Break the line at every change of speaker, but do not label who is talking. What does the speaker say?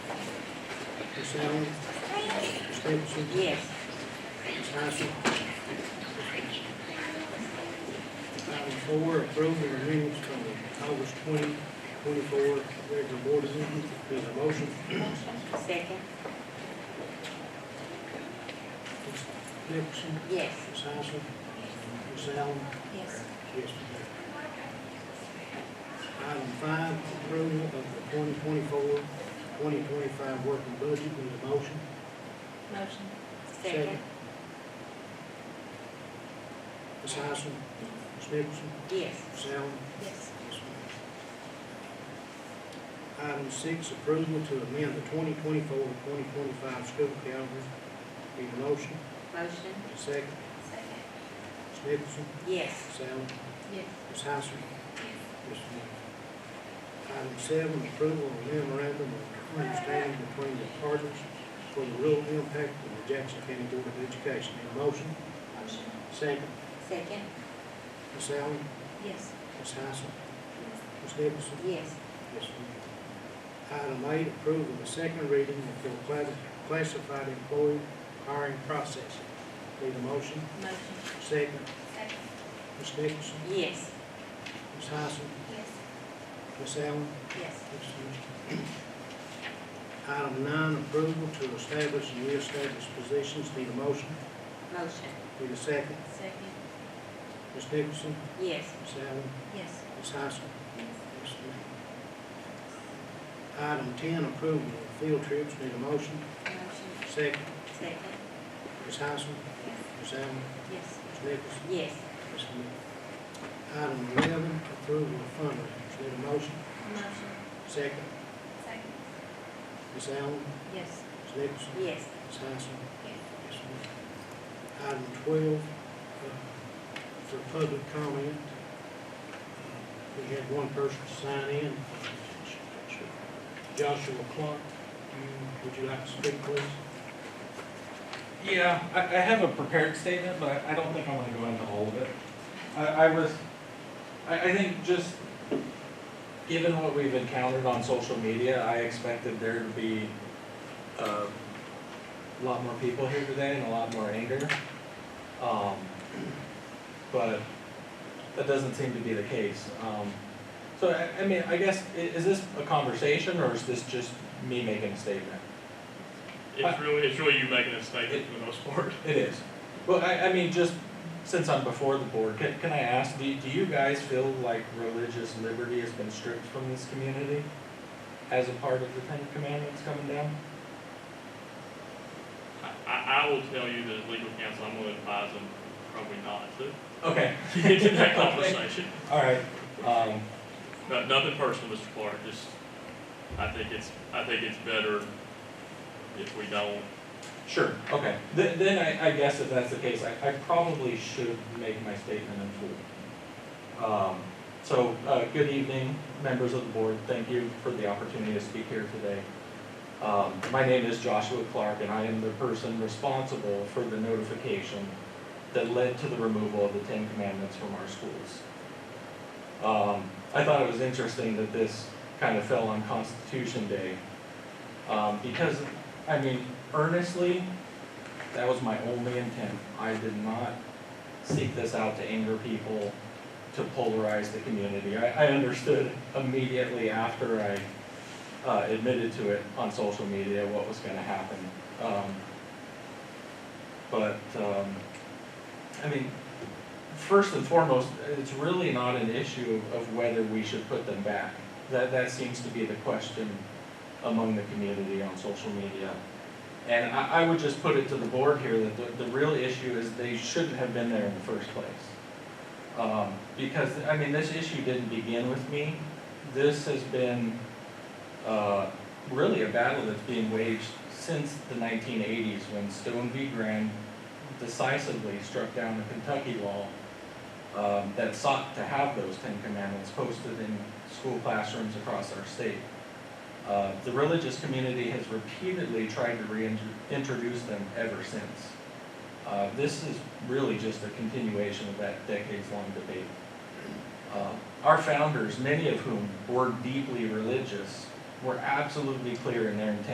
Ms. Allen, Ms. Stevenson,
Yes.
Ms. Hyson. Item four, approval of minutes from the August twenty twenty-four regular board meeting. Is there a motion?
Second?
Ms. Stevenson,
Yes.
Ms. Hyson, Ms. Allen.
Yes.
Yes, ma'am. Item five, approval of the 2024-2025 working budget. Is there a motion?
Motion. Second?
Ms. Hyson, Ms. Nicholson,
Yes.
Ms. Allen.
Yes.
Yes, ma'am. Item six, approval to amend the 2024-2025 school calendar. Need a motion,
Motion?
a second.
Second.
Ms. Nicholson,
Yes.
Ms. Allen,
Yes.
Ms. Hyson. Yes, ma'am. Item seven, approval of memorandum of understanding between the partners for the rural impact of the Jackson County Board of Education. Need a motion,
Motion.
second.
Second?
Ms. Allen,
Yes.
Ms. Hyson, Ms. Nicholson,
Yes.
Yes, ma'am. Item eight, approve of the second reading of the cla- classified employee hiring process. Need a motion?
Motion.
Second.
Second?
Ms. Nicholson,
Yes.
Ms. Hyson,
Yes.
Ms. Allen.
Yes.
Yes, ma'am. Item nine, approval to establish and reestablish positions. Need a motion?
Motion.
Need a second.
Second?
Ms. Nicholson,
Yes.
Ms. Allen,
Yes.
Ms. Hyson. Yes, ma'am. Item ten, approval of field trips. Need a motion?
Motion.
Second.
Second?
Ms. Hyson, Ms. Allen,
Yes.
Ms. Nicholson,
Yes.
Ms. Smith. Item eleven, approval of fundraisers. Need a motion?
Motion.
Second.
Second?
Ms. Allen,
Yes.
Ms. Nicholson,
Yes.
Ms. Hyson.
Yes.
Yes, ma'am. Item twelve, uh, for public comment. We had one person sign in. Joshua Clark, you- would you like to speak, please?
Yeah, I, I have a prepared statement, but I- I don't think I want to go into all of it. I, I was, I, I think just, given what we've encountered on social media, I expected there to be, um, a lot more people here today and a lot more anger. Um, but that doesn't seem to be the case. Um, so I, I mean, I guess, i- is this a conversation or is this just me making a statement?
It's really, it's really you making a statement for the most part.
It is. Well, I, I mean, just since I'm before the board, can, can I ask, do, do you guys feel like religious liberty has been stripped from this community as a part of the Ten Commandments coming down?
I, I, I will tell you that as legal counsel, I'm gonna advise them probably not to
Okay,
get into that conversation.
all right. Um,
No, nothing personal, Mr. Clark, just, I think it's, I think it's better if we don't.
sure, okay. Then, then I, I guess if that's the case, I, I probably should make my statement in full. Um, so, uh, good evening, members of the board. Thank you for the opportunity to speak here today. Um, My name is Joshua Clark, and I am the person responsible for the notification that led to the removal of the Ten Commandments from our schools. Um, I thought it was interesting that this kind of fell on Constitution Day, um, because, I mean, earnestly, that was my only intent. I did not seek this out to anger people, to polarize the community. I, I understood immediately after I uh, admitted to it on social media what was going to happen. Um, but um, I mean, first and foremost, it's really not an issue of whether we should put them back. That that seems to be the question among the community on social media. And I, I would just put it to the board here that the, the real issue is they shouldn't have been there in the first place. Um, because, I mean, this issue didn't begin with me. This has been uh, really a battle that's being waged since the 1980s when Stone v. Graham decisively struck down the Kentucky law um, that sought to have those Ten Commandments posted in school classrooms across our state. Uh, the religious community has repeatedly tried to reintroduce them ever since. Uh, this is really just a continuation of that decades-long debate. Uh, Our founders, many of whom were deeply religious, were absolutely clear in their intent